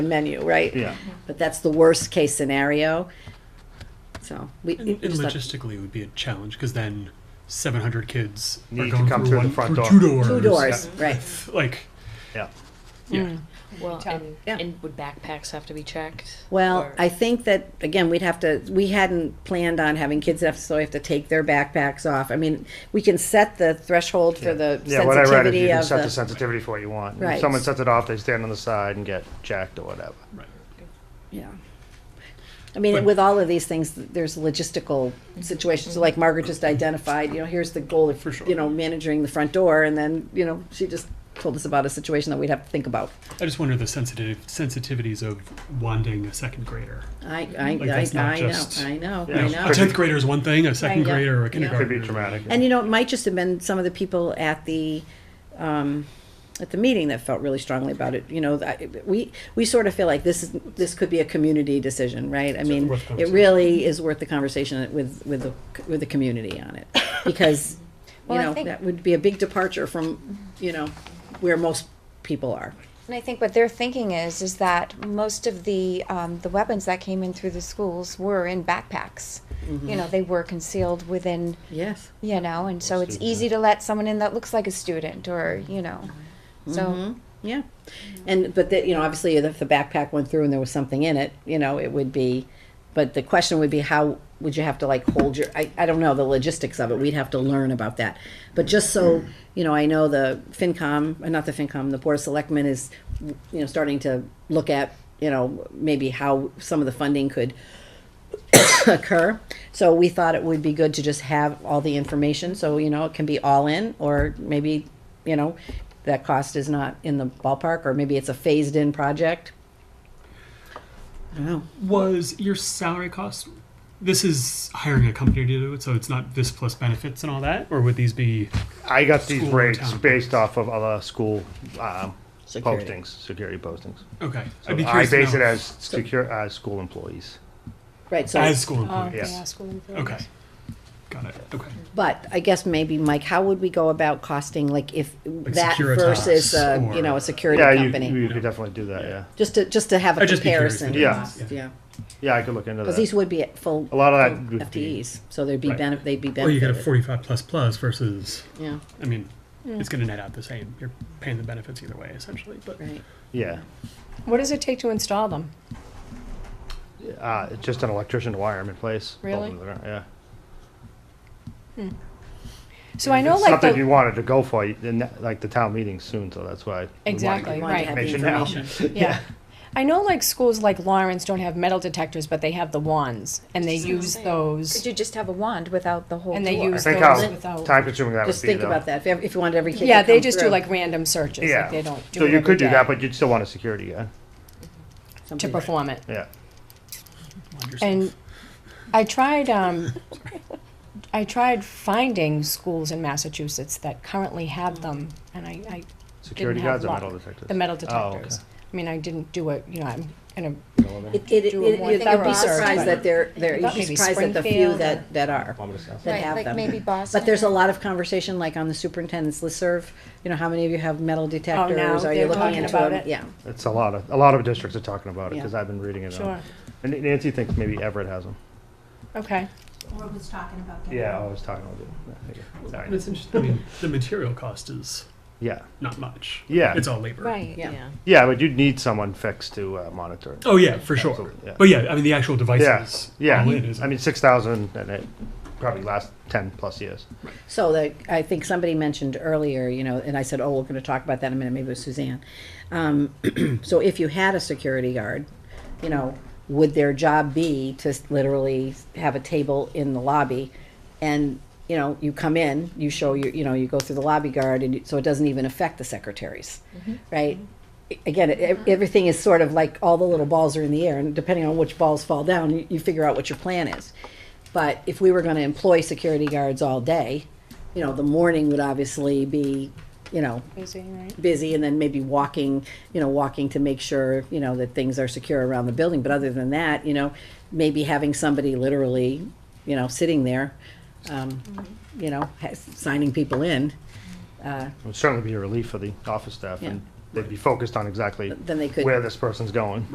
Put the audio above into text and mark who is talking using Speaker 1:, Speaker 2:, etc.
Speaker 1: menu, right?
Speaker 2: Yeah.
Speaker 1: But that's the worst case scenario. So we.
Speaker 3: And, and
Speaker 1: just let-
Speaker 3: logistically, it would be a challenge because then 700 kids
Speaker 2: Need
Speaker 3: are
Speaker 2: to
Speaker 3: going
Speaker 2: come
Speaker 3: through,
Speaker 2: through the
Speaker 3: one,
Speaker 2: front
Speaker 3: through
Speaker 2: door.
Speaker 1: Two
Speaker 3: Two
Speaker 1: doors, right?
Speaker 3: Like,
Speaker 2: Yeah.
Speaker 3: yeah.
Speaker 4: Well,
Speaker 5: Tell me.
Speaker 4: and,
Speaker 1: Yeah.
Speaker 4: and would backpacks have to be checked?
Speaker 1: Well,
Speaker 4: Or-
Speaker 1: I think that, again, we'd have to, we hadn't planned on having kids have, so we have to take their backpacks off. I mean, we can set the threshold for the
Speaker 2: Yeah, what I read is
Speaker 1: sensitivity
Speaker 2: you can
Speaker 1: of
Speaker 2: set the
Speaker 1: the.
Speaker 2: sensitivity for what you want. If
Speaker 1: Right.
Speaker 2: someone sets it off, they stand on the side and get jacked or whatever.
Speaker 3: Right.
Speaker 1: Yeah. I mean,
Speaker 3: But-
Speaker 1: with all of these things, there's logistical situations, like Margaret just identified, you know, here's the goal of,
Speaker 3: For sure.
Speaker 1: you know, managing the front door, and then, you know, she just told us about a situation that we'd have to think about.
Speaker 3: I just wonder the sensitive sensitivities of wanting a second grader.
Speaker 1: I, I,
Speaker 3: Like,
Speaker 1: I,
Speaker 3: that's not
Speaker 1: I know,
Speaker 3: just-
Speaker 1: I know,
Speaker 2: Yeah.
Speaker 1: I
Speaker 2: Yeah.
Speaker 3: A
Speaker 1: know.
Speaker 2: Could
Speaker 3: tenth
Speaker 2: be-
Speaker 3: grader is one thing. A second
Speaker 1: Right, yeah.
Speaker 3: grader or
Speaker 1: Yeah.
Speaker 3: a
Speaker 1: Could be
Speaker 2: Could
Speaker 3: kindergartner.
Speaker 2: be traumatic.
Speaker 1: And you know, it might just have been some of the people at the, um, at the meeting that felt really strongly about it, you know, that- we, we sort of feel like this is, this could be a community decision, right? I mean,
Speaker 3: worth
Speaker 1: it
Speaker 3: conversation.
Speaker 1: really is worth the conversation with, with the, with the community on it, because, you
Speaker 5: Well, I
Speaker 1: know,
Speaker 5: think-
Speaker 1: that would be a big departure from, you know, where most people are.
Speaker 5: And I think what they're thinking is, is that most of the, um, the weapons that came in through the schools were in backpacks. You know, they were concealed within,
Speaker 1: Yes.
Speaker 5: you know, and so it's
Speaker 2: Student,
Speaker 5: easy to let someone in that looks like a student or, you know.
Speaker 1: Mm-hmm.
Speaker 5: So,
Speaker 1: Yeah, and but that you know obviously if the backpack went through and there was something in it, you know it would be, but the question would be how would you have to like hold your I, I don't know the logistics of it. We'd have to learn about that. But just so you know, I know the FinCom, uh, not the FinCom, the Board of Selectmen is you know starting to look at you know maybe how some of the funding could occur. So we thought it would be good to just have all the information, so, you know, it can be all in, or maybe, you know, that cost is not in the ballpark, or maybe it's a phased-in project. I don't know.
Speaker 3: Was your salary cost? This is hiring a company to do it, so it's not this plus benefits and all that. Or would these be?
Speaker 2: I got these
Speaker 3: School
Speaker 2: rates
Speaker 3: town.
Speaker 2: based off of other school um,
Speaker 1: Security.
Speaker 2: postings, security postings.
Speaker 3: Okay.
Speaker 2: So
Speaker 3: I'd be
Speaker 2: I
Speaker 3: curious to
Speaker 2: base
Speaker 3: know.
Speaker 2: it as secure, as school employees.
Speaker 1: Right, so,
Speaker 3: as school employees.
Speaker 2: Yes.
Speaker 3: Okay. Got it. Okay.
Speaker 1: but I guess maybe, Mike, how would we go about costing, like, if that
Speaker 3: Securitas
Speaker 1: versus, uh, you know,
Speaker 3: or-
Speaker 1: a security
Speaker 2: Yeah, you,
Speaker 1: company?
Speaker 2: you could definitely do that, yeah.
Speaker 1: Just to, just to have a
Speaker 3: I'd just be curious
Speaker 1: comparison.
Speaker 3: to
Speaker 2: do
Speaker 1: cost,
Speaker 3: that.
Speaker 1: Yeah,
Speaker 2: Yeah, I could look into
Speaker 1: because these
Speaker 2: that.
Speaker 1: would be at full.
Speaker 2: A lot of that
Speaker 1: full
Speaker 2: would be-
Speaker 1: FTEs, so there'd be
Speaker 3: Right.
Speaker 1: benefit, they'd be
Speaker 3: Or you get a
Speaker 1: benefited.
Speaker 3: forty-five plus plus versus.
Speaker 1: Yeah,
Speaker 3: I mean, it's going to net out the same. You're paying the benefits either way, essentially. But
Speaker 1: right.
Speaker 2: Yeah.
Speaker 6: What does it take to install them?
Speaker 2: Uh, it's just an electrician to wire them in place. bolt
Speaker 6: Really?
Speaker 2: them to the ground, Yeah.
Speaker 6: So I know
Speaker 2: It's
Speaker 6: like
Speaker 2: Something you
Speaker 6: the,
Speaker 2: wanted to go for, you- then that- like the town meeting's soon, so that's why. we wanted to
Speaker 6: Exactly,
Speaker 2: get
Speaker 1: Wanted to
Speaker 6: Right.
Speaker 1: have the
Speaker 2: Information now.
Speaker 1: information.
Speaker 6: yeah. I know like schools like Lawrence don't have metal detectors, but they have the wands and they use
Speaker 5: could
Speaker 6: those.
Speaker 5: you just have a wand without the whole
Speaker 6: And they
Speaker 5: door?
Speaker 2: I
Speaker 6: use
Speaker 2: think
Speaker 6: those
Speaker 2: how
Speaker 6: without.
Speaker 2: time consuming that would be though.
Speaker 1: Just think about that, if, ev- if you wanted every kid to
Speaker 6: Yeah, they
Speaker 1: come
Speaker 6: just do
Speaker 1: through,
Speaker 6: like random searches,
Speaker 2: Yeah.
Speaker 6: like they don't do
Speaker 2: So
Speaker 6: it
Speaker 2: you
Speaker 6: every
Speaker 2: could do
Speaker 6: day
Speaker 2: that, but you'd still want a security guy,
Speaker 6: To
Speaker 1: something-
Speaker 6: perform it.
Speaker 2: yeah.
Speaker 3: mind yourself.
Speaker 6: And I tried, um, I tried finding schools in Massachusetts that currently have them and I, I
Speaker 2: Security
Speaker 6: Didn't have
Speaker 2: guards or metal
Speaker 6: luck.
Speaker 2: detectors?
Speaker 6: the metal
Speaker 2: Oh, okay.
Speaker 6: detectors. I mean, I didn't do it, you know, I'm gonna
Speaker 1: It, it, it,
Speaker 6: Do a more
Speaker 1: it- I'd be
Speaker 5: thorough
Speaker 1: surprised
Speaker 5: survey.
Speaker 1: that there, there, you'd
Speaker 6: Thought
Speaker 1: be
Speaker 6: maybe
Speaker 1: surprised at the few
Speaker 6: Springfield
Speaker 1: that, that are,
Speaker 2: Bomb it yourself.
Speaker 1: that
Speaker 5: Right,
Speaker 1: have
Speaker 5: like
Speaker 1: them.
Speaker 5: maybe Boston.
Speaker 1: But there's a lot of conversation, like on the superintendent's listserv, you know, how many of you have metal detectors, are you
Speaker 6: Oh, they're
Speaker 1: looking
Speaker 6: talking
Speaker 1: into
Speaker 6: about
Speaker 1: them?
Speaker 6: it.
Speaker 1: Yeah,
Speaker 2: It's a lot of, a lot of districts are talking about it,
Speaker 1: Yeah.
Speaker 2: because I've been reading it. on-
Speaker 6: Sure.
Speaker 2: And Nancy thinks maybe Everett has them.
Speaker 6: Okay.
Speaker 7: Or was talking about that.
Speaker 2: Yeah, oh, I was talking about it. I figured. Sorry.
Speaker 3: And it's interesting. I mean, the material cost is
Speaker 2: Yeah,
Speaker 3: not much.
Speaker 2: Yeah.
Speaker 3: It's all labor.
Speaker 4: Right,
Speaker 1: Yeah.
Speaker 4: yeah.
Speaker 2: yeah, but you'd need someone fixed to uh, monitor it.
Speaker 3: Oh yeah, for sure.
Speaker 2: Absolutely, yeah.
Speaker 3: But yeah, I mean the actual
Speaker 2: Yeah,
Speaker 3: devices.
Speaker 2: yeah,
Speaker 3: all in is-
Speaker 2: I mean, six thousand, and it probably lasts ten plus years.
Speaker 1: so the, I think somebody mentioned earlier, you know, and I said, oh, we're gonna talk about that in a minute, maybe it was Suzanne. Um, so if you had a security guard, you know, would their job be to s- literally have a table in the lobby? And, you know, you come in, you show your, you know, you go through the lobby guard and you- so it doesn't even affect the secretaries, right? I- Again, it- ev- everything is sort of like all the little balls are in the air and depending on which balls fall down, you, you figure out what your plan is. But if we were gonna employ security guards all day, you know, the morning would obviously be, you know,
Speaker 6: Busy, right?
Speaker 1: busy and then maybe walking, you know, walking to make sure, you know, that things are secure around the building. But other than that, you know, maybe having somebody literally, you know, sitting there, um, you know, ha- signing people in, uh,
Speaker 2: It would certainly be a relief for the office staff,
Speaker 1: Yeah.
Speaker 2: and they'd be focused on exactly
Speaker 1: then they could.
Speaker 2: where this person's going.